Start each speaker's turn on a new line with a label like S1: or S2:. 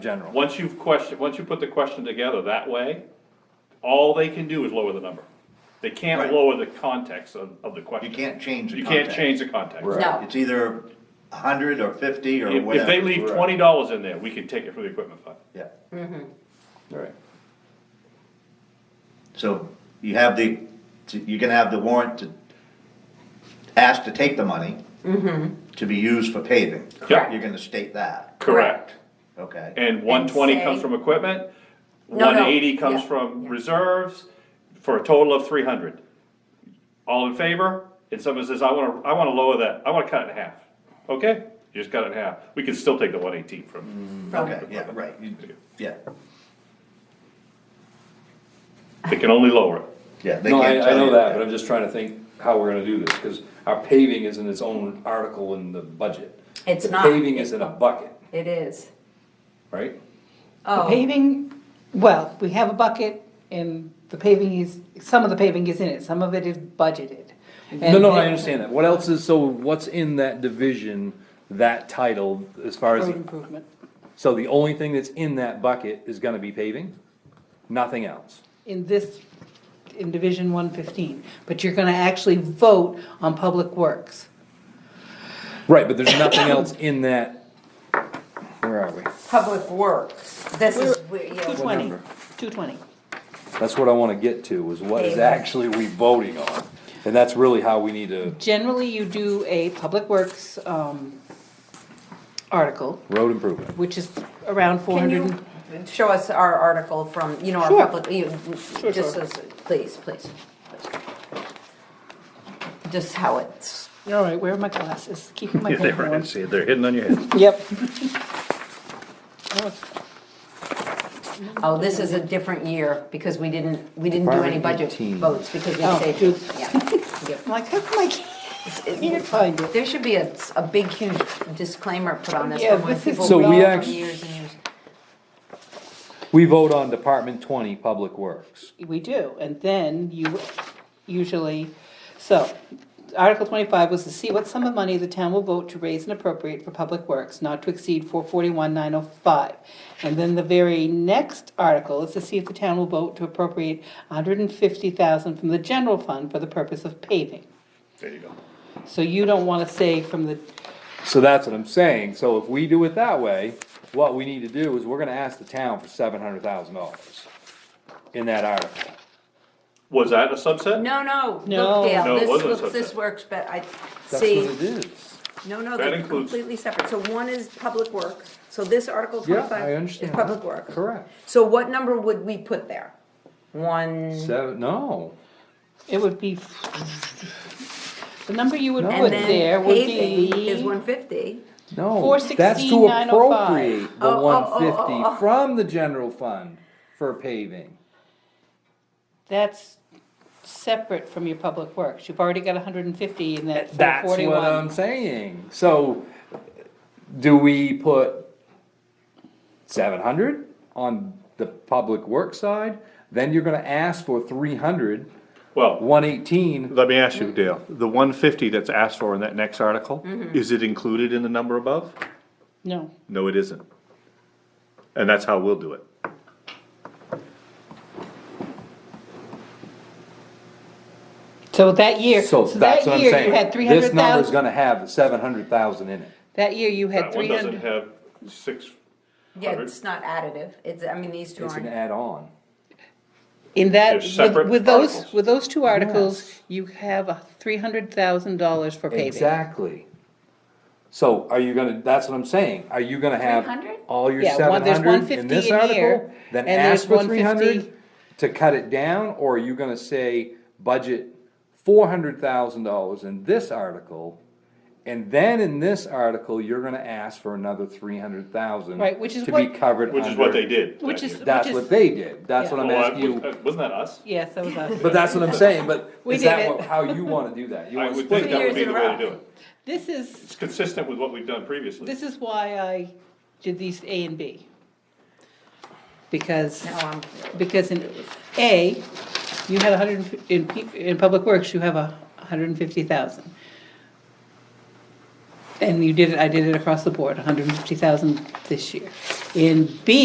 S1: general.
S2: Once you've questioned, once you put the question together that way, all they can do is lower the number. They can't
S3: Right.
S2: lower the context of, of the
S3: You
S2: question.
S3: can't change the
S2: You can't
S3: context.
S2: change the context.
S1: Right.
S4: No.
S3: It's either a hundred or fifty or
S2: If, if they
S3: whatever.
S2: leave
S1: Right.
S2: twenty dollars in there, we can take it from the equipment fund.
S3: Yeah,
S1: Right.
S3: so you have the, you can have the warrant to ask to take the money
S1: Mm-hmm.
S3: to be used for paving.
S2: Correct.
S3: You're gonna state that,
S2: Correct.
S3: okay?
S2: And one twenty
S4: say-
S2: comes from equipment,
S4: No,
S2: one
S4: no,
S2: eighty comes
S4: yeah,
S2: from
S4: yeah.
S2: reserves, for a total of three hundred. All in favor? And someone says, I wanna, I wanna lower that, I wanna cut it in half. Okay, you just cut it in half. We can still take the one eighteen from,
S3: Okay, yeah, right, you- yeah,
S2: they can only lower it.
S3: yeah. they
S1: No, I,
S3: can't tell
S1: I know
S3: you
S1: that, but I'm just trying to think how we're gonna do this, cause our paving isn't its own article in the budget.
S4: It's
S1: The
S4: not.
S1: Paving is in a bucket,
S4: It is.
S1: right?
S5: The
S4: Oh,
S5: paving, well, we have a bucket and the paving is, some of the paving is in it, some of it is budgeted.
S6: Mm-hmm. No, no, I
S5: And-
S6: understand that. What else is, so what's in that division, that title, as far as,
S5: Road improvement.
S6: so the only thing that's in that bucket is gonna be paving? Nothing else?
S5: in this, in Division one fifteen, but you're gonna actually vote on Public Works.
S6: Right, but there's nothing else in that, where are we?
S4: Public Works. This is, where, you
S5: Two
S4: know,
S5: twenty.
S6: number?
S5: Two twenty.
S6: That's what I wanna get to, is what is
S4: Paving.
S6: actually we voting on? And that's really how we need to,
S5: Generally, you do a Public Works, um, article,
S6: road improvement.
S5: which is around four
S4: can
S5: hundred
S4: you show us our article from, you know, our
S5: Sure.
S4: public, you, just as, please, please. Just how it's,
S5: All right, where are my glasses? Keeping my head warm.
S2: it, they're hidden on your head.
S5: Yep.
S4: oh, this is a different year because we didn't, we didn't do any
S6: Department
S4: budget
S6: 18.
S4: votes because we
S5: Oh,
S4: saved
S5: dude.
S4: it. Yeah.
S5: I'm like, how come I can't, can't find it?
S4: There should be a, a big huge disclaimer put on this
S5: Yeah,
S4: from when
S5: this is
S4: people
S6: So
S4: read
S6: we
S4: it for
S6: act-
S4: years and years.
S6: We vote on Department twenty, Public Works.
S5: We do, and then you usually, so, Article twenty-five was to see what sum of money the town will vote to raise and appropriate for public works, not to exceed four forty-one nine oh five. And then the very next article is to see if the town will vote to appropriate hundred and fifty thousand from the general fund for the purpose of paving.
S2: There you go.
S5: So you don't wanna say from the,
S6: So that's what I'm saying, so if we do it that way, what we need to do is we're gonna ask the town for seven hundred thousand dollars in that article.
S2: Was that a subset?
S4: No, no,
S5: No.
S4: look,
S2: No,
S4: Dale,
S2: it
S4: this
S2: wasn't
S4: looks,
S2: such
S4: this
S2: a-
S4: works, but I,
S6: That's what
S4: see,
S6: it is.
S4: no, no,
S2: That
S4: they're
S2: includes-
S4: completely separate, so one is public work, so this Article
S6: Yeah, I
S4: twenty-five is
S6: understand.
S4: public work.
S6: Correct.
S4: So what number would we put there? One,
S6: Seven, no,
S5: it would be, the number you would
S6: No.
S5: put
S4: and
S5: there
S4: then
S5: would be.
S4: paving is one fifty,
S6: no, that's to
S5: 416,905.
S6: appropriate the
S4: Oh, oh,
S6: one
S4: oh, oh, oh.
S6: fifty from the general fund for paving.
S5: That's separate from your public works, you've already got hundred and fifty in that
S6: That's
S5: forty
S6: what I'm
S5: one.
S6: saying, so do we put seven hundred on the public work side? Then you're gonna ask for three hundred,
S2: Well,
S6: one eighteen,
S2: let me ask you, Dale, the one fifty that's asked for in that next article, is it included in the number above?
S5: No,
S2: No, it isn't. And that's how we'll do it.
S5: so that year,
S6: so
S5: so that
S6: that's what I'm
S5: year you had
S6: saying.
S5: three
S6: This
S5: hundred
S6: number's
S5: thousand,
S6: gonna have seven hundred thousand in it.
S5: that year you had
S2: That one
S5: three
S2: doesn't
S5: hundred,
S2: have six,
S4: yeah,
S2: Hundred.
S4: it's not additive, it's, I mean, these two
S6: It's an
S4: aren't.
S6: add-on.
S5: in that,
S2: They're separate
S5: with, with those,
S2: articles.
S5: with those two articles,
S6: Yes.
S5: you have a three hundred thousand dollars for paving.
S6: Exactly. So are you gonna, that's what I'm saying, are you gonna have
S4: 300?
S6: all your
S5: Yeah,
S6: seven
S5: one- there's
S6: hundred in
S5: 150
S6: this
S5: in
S6: article?
S5: here,
S6: Then
S5: and there's
S6: ask for three
S5: 150.
S6: hundred to cut it down, or are you gonna say budget four hundred thousand dollars in this article? And then in this article, you're gonna ask for another three hundred thousand.
S5: Right, which is
S6: To be
S5: what-
S6: covered
S2: which is what
S6: under-
S2: they did.
S5: Which
S2: that
S5: is-
S2: year.
S6: That's
S5: Which
S6: what they did, that's
S5: Yeah.
S6: what I'm
S2: Well, I- uh,
S6: asking you,
S2: Wasn't that us?
S5: Yes, that was us.
S6: but that's what I'm saying, but
S5: We
S6: is that
S5: did
S6: what-
S5: it.
S6: how you wanna do that? You
S2: I
S6: wanna
S2: would
S6: split
S2: think
S6: it?
S2: that
S4: years
S2: would be
S4: in
S2: the
S4: a
S2: way to
S4: row.
S2: do it.
S5: This is,
S2: It's consistent with what we've done previously.
S5: this is why I did these A and B. Because.
S4: No, I'm,
S5: Because in A, you had a hundred, and fif- in, pe- in public works, you have a hundred and fifty thousand. And you did it, I did it across the board, a hundred and fifty thousand this year. In B,